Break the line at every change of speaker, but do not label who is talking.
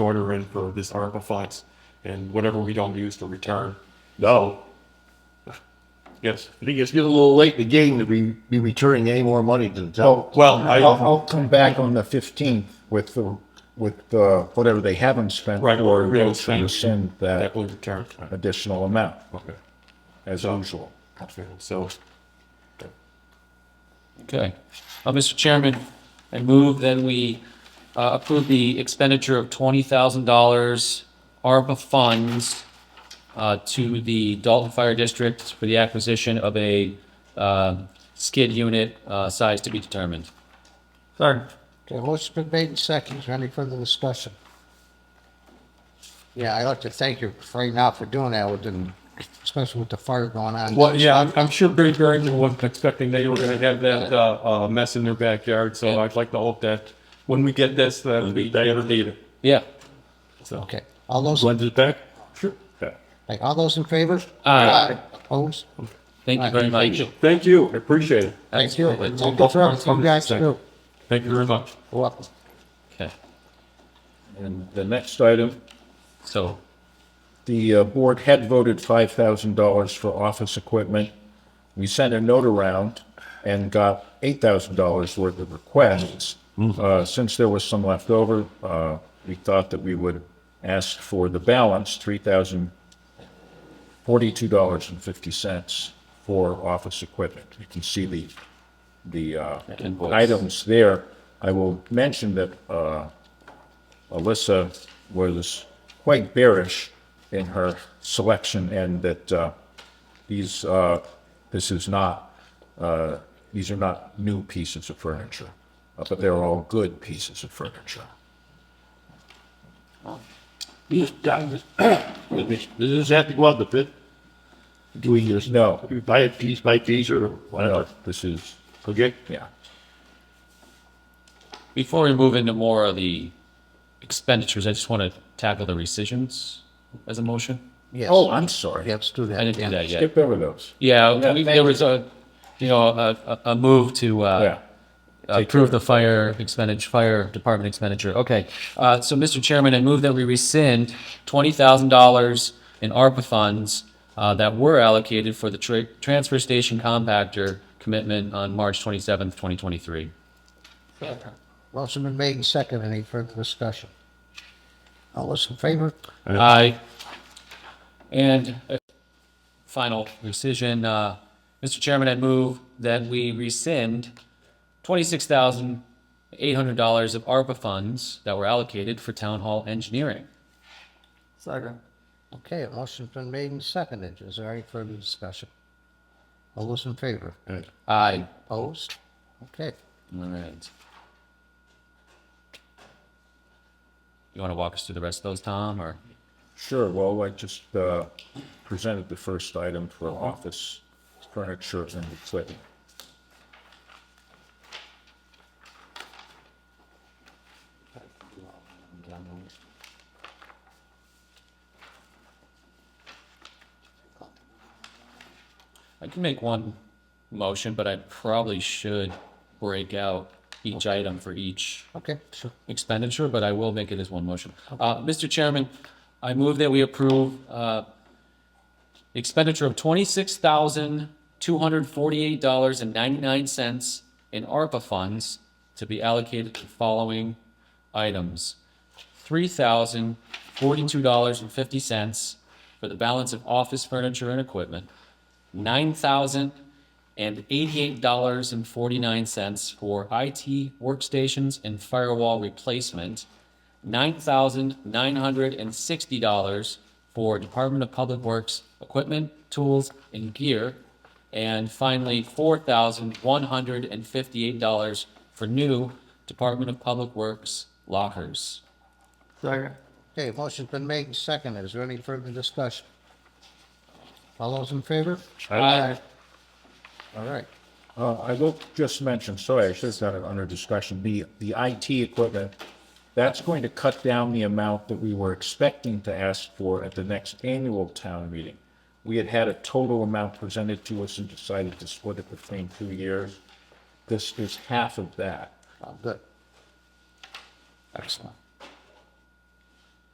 order in for this ARPA funds and whatever we don't use to return. No. Yes.
I think it's getting a little late in the game to be, be returning any more money to the town.
Well,
Oh, Well,
I'll,
I,
I'll come back on the fifteenth with the, with, uh, whatever they haven't spent.
Right,
Or
or we haven't
we'll
spent.
send
that
that
will return.
additional amount
Okay.
as usual.
So,
Okay. Uh, Mr. Chairman, I move that we uh, approve the expenditure of twenty thousand dollars ARPA funds uh, to the Dalton Fire District for the acquisition of a um, skid unit uh, size to be determined.
Okay, motion's been made and seconded. Is there any further discussion? Yeah, I'd like to thank you right now for doing that with the, especially with the fire going on.
well, yeah, I'm, I'm sure Great Barrington wasn't expecting they were gonna have that, uh, uh, mess in their backyard, so I'd like to hope that when we get this, that we never need it,
Yeah.
so.
Okay, all those,
When's it back?
Sure.
like, all those in favor?
Aye.
Opposed?
Thank you very
Thank
much.
Thank you, I appreciate it.
Thank you.
Absolutely.
Thank you for everything you guys do. You're
Thank you very much.
welcome.
Okay.
And
And
The next item,
so,
the uh, board had voted five thousand dollars for office equipment. We sent a note around and got eight thousand dollars worth of requests. Uh, since there was some left over, uh, we thought that we would ask for the balance, three thousand forty-two dollars and fifty cents for office equipment. You can see the, the, uh,
Invoice.
items there. I will mention that, uh, Alyssa was quite bearish in her selection and that uh, these, uh, this is not, uh, these are not new pieces of furniture, uh, but they're all good pieces of furniture.
These guys, excuse me, does this have to go out the bid? Do we just,
No.
we buy it piece by piece or
No,
whatever?
uh, This is,
Okay?
yeah.
before we move into more of the expenditures, I just want to tackle the rescissions as a motion.
Yes.
Oh, I'm sorry.
Yes, do that.
I didn't do
yeah.
that yet.
Skip over those.
Yeah, we-
thank
there was a, you know, a, a- a move to
Yeah.
uh, approve the fire expenditure, fire department expenditure. Okay. Uh, So, Mr. Chairman, I move that we rescind $20,000 in ARPA funds uh, that were allocated for the tra- transfer station compactor commitment on March 27th, 2023.
Motion been made and seconded. Any further discussion? All those in favor?
Aye. And a final rescission, uh, Mr. Chairman, I move that we rescind twenty-six thousand eight hundred dollars of ARPA funds that were allocated for town hall engineering.
Okay, motion's been made and seconded. Is there any further discussion? All those in favor?
Aye.
Opposed? Okay.
All right. You want to walk us through the rest of those, Tom, or?
Sure, well, I just uh, presented the first item for office furniture and equipment.
I can make one motion, but I probably should break out each item for each
Okay, sure.
expenditure, but I will make it as one motion. Uh, Mr. Chairman, I move that we approve, uh, expenditure of twenty-six thousand, two hundred forty-eight dollars and ninety-nine cents in ARPA funds to be allocated to the following items. Three thousand, forty-two dollars and fifty cents for the balance of office furniture and equipment. Nine thousand and eighty-eight dollars and forty-nine cents for IT workstations and firewall replacement, nine thousand nine hundred and sixty dollars for Department of Public Works equipment, tools, and gear, and finally, four thousand one hundred and fifty-eight dollars for new Department of Public Works lockers.
Okay, motion's been made and seconded. Is there any further discussion? All those in favor?
Aye.
All right.
Uh, I will just mention, sorry, I should have done it under discussion, the, the IT equipment, that's going to cut down the amount that we were expecting to ask for at the next annual town meeting. We had had a total amount presented to us and decided to split it between two years. This is half of that.
Oh, good. Excellent.